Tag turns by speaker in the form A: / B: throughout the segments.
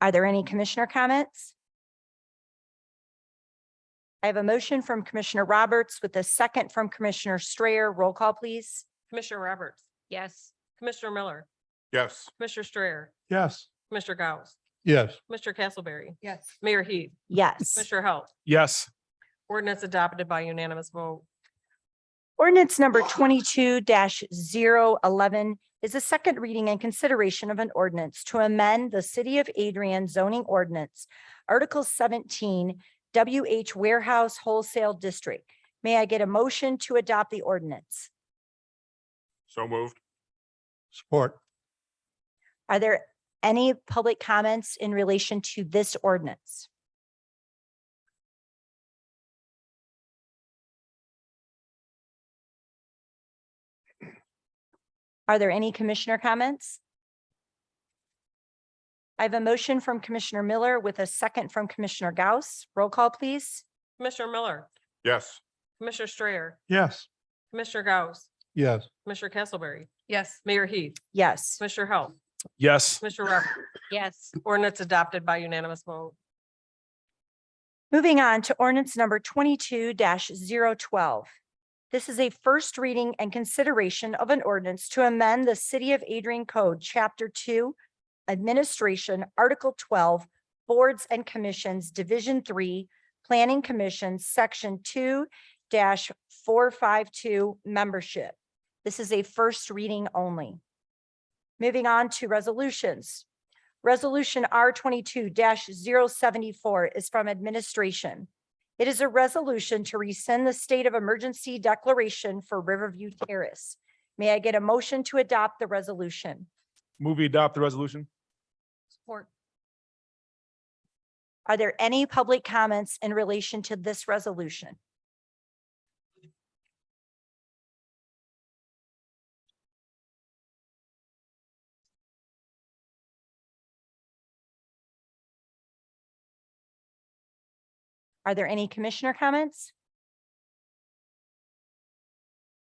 A: Are there any commissioner comments? I have a motion from Commissioner Roberts with a second from Commissioner Strayer. Roll call, please.
B: Commissioner Roberts. Yes. Commissioner Miller,
C: Yes.
B: Commissioner Strayer,
C: Yes.
B: Commissioner Gauss,
C: Yes.
B: Mr. Castleberry,
D: yes,
B: Mayor Heath,
A: Yes.
B: Commissioner Halt.
C: Yes.
B: Ordinance adopted by unanimous vote.
A: Ordinance number twenty-two 11 is a second reading and consideration of an ordinance to amend the City of Adrian zoning ordinance, Article seventeen, WH Warehouse Wholesale District. May I get a motion to adopt the ordinance?
C: So moved. Support.
A: Are there any public comments in relation to this ordinance? Are there any commissioner comments? I have a motion from Commissioner Miller with a second from Commissioner Gauss. Roll call, please.
B: Commissioner Miller,
C: Yes.
B: Commissioner Strayer,
C: Yes.
B: Commissioner Gauss,
C: Yes.
B: Commissioner Castleberry,
D: yes,
B: Mayor Heath,
A: Yes.
B: Commissioner Halt,
C: Yes.
B: Commissioner Roberts. Yes. Ordinance adopted by unanimous vote.
A: Moving on to ordinance number twenty-two 12 This is a first reading and consideration of an ordinance to amend the City of Adrian Code, Chapter Two, Administration, Article twelve, Boards and Commissions, Division Three, Planning Commission, Section two four five two, Membership. This is a first reading only. Moving on to resolutions. Resolution R twenty-two 74 is from administration. It is a resolution to rescind the state of emergency declaration for Riverview Terrace. May I get a motion to adopt the resolution?
C: Movie adopt the resolution?
B: Support.
A: Are there any public comments in relation to this resolution? Are there any commissioner comments?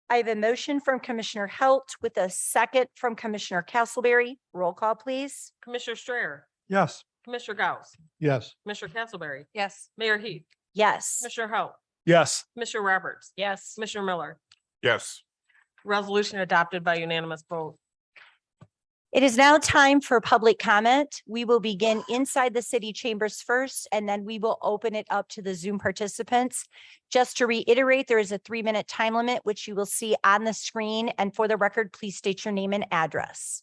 A: I have a motion from Commissioner Halt with a second from Commissioner Castleberry. Roll call, please.
B: Commissioner Strayer,
C: Yes.
B: Commissioner Gauss,
C: Yes.
B: Commissioner Castleberry,
D: yes,
B: Mayor Heath,
A: Yes.
B: Commissioner Halt,
C: Yes.
B: Commissioner Roberts. Yes. Commissioner Miller,
C: Yes.
B: resolution adopted by unanimous vote.
A: It is now time for public comment. We will begin inside the city chambers first, and then we will open it up to the Zoom participants. Just to reiterate, there is a three-minute time limit, which you will see on the screen. And for the record, please state your name and address.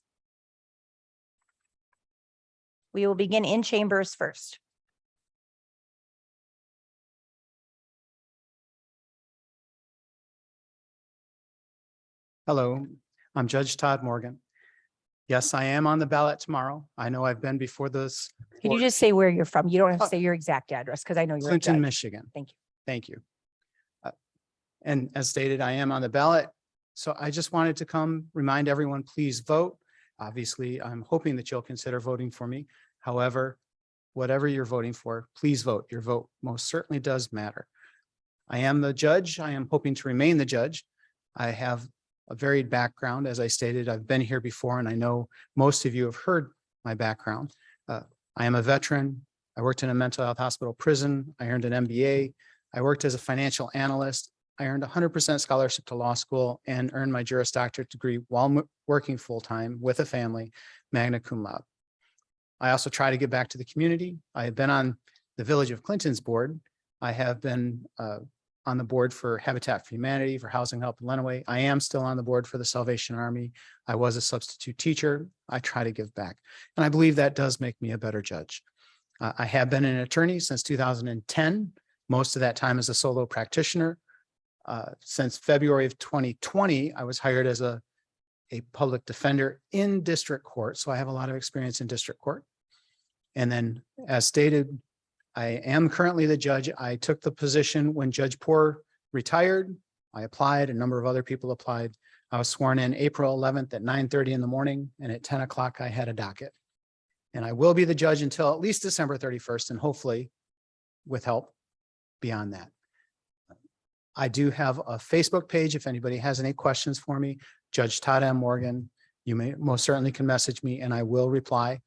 A: We will begin in chambers first.
E: Hello, I'm Judge Todd Morgan. Yes, I am on the ballot tomorrow. I know I've been before this
A: Can you
E: Or-
A: just say where you're from? You don't have to
E: Oh.
A: say your exact address because I know you're. a
E: Clinton,
A: judge.
E: Michigan.
A: Thank you.
E: Thank you. Uh, And as stated, I am on the ballot. So I just wanted to come remind everyone, please vote. Obviously, I'm hoping that you'll consider voting for me. However, whatever you're voting for, please vote. Your vote most certainly does matter. I am the judge. I am hoping to remain the judge. I have a varied background. As I stated, I've been here before and I know most of you have heard my background. Uh, I am a veteran. I worked in a mental health hospital prison. I earned an MBA. I worked as a financial analyst. I earned hundred percent scholarship to law school and earned my Juris Doctorate degree while m- working full-time with a family, magna cum laude. I also try to give back to the community. I have been on the Village of Clinton's board. I have been uh, on the board for Habitat for Humanity, for Housing Help in Lenawee. I am still on the board for the Salvation Army. I was a substitute teacher. I try to give back. And I believe that does make me a better judge. Uh, I have been an attorney since two thousand and ten most of that time as a solo practitioner. Uh, Since February of 2020, I was hired as a, a public defender in district court, so I have a lot of experience in district court. And then, as stated, I am currently the judge. I took the position when Judge Poor retired. I applied, a number of other people applied. I was sworn in April 11th at 9:30 in the morning, and at 10 o'clock, I had a docket. And I will be the judge until at least December 31st, and hopefully, with help, beyond that. I do have a Facebook page. If anybody has any questions for me, Judge Todd M. Morgan, you may most certainly can message me and I will reply.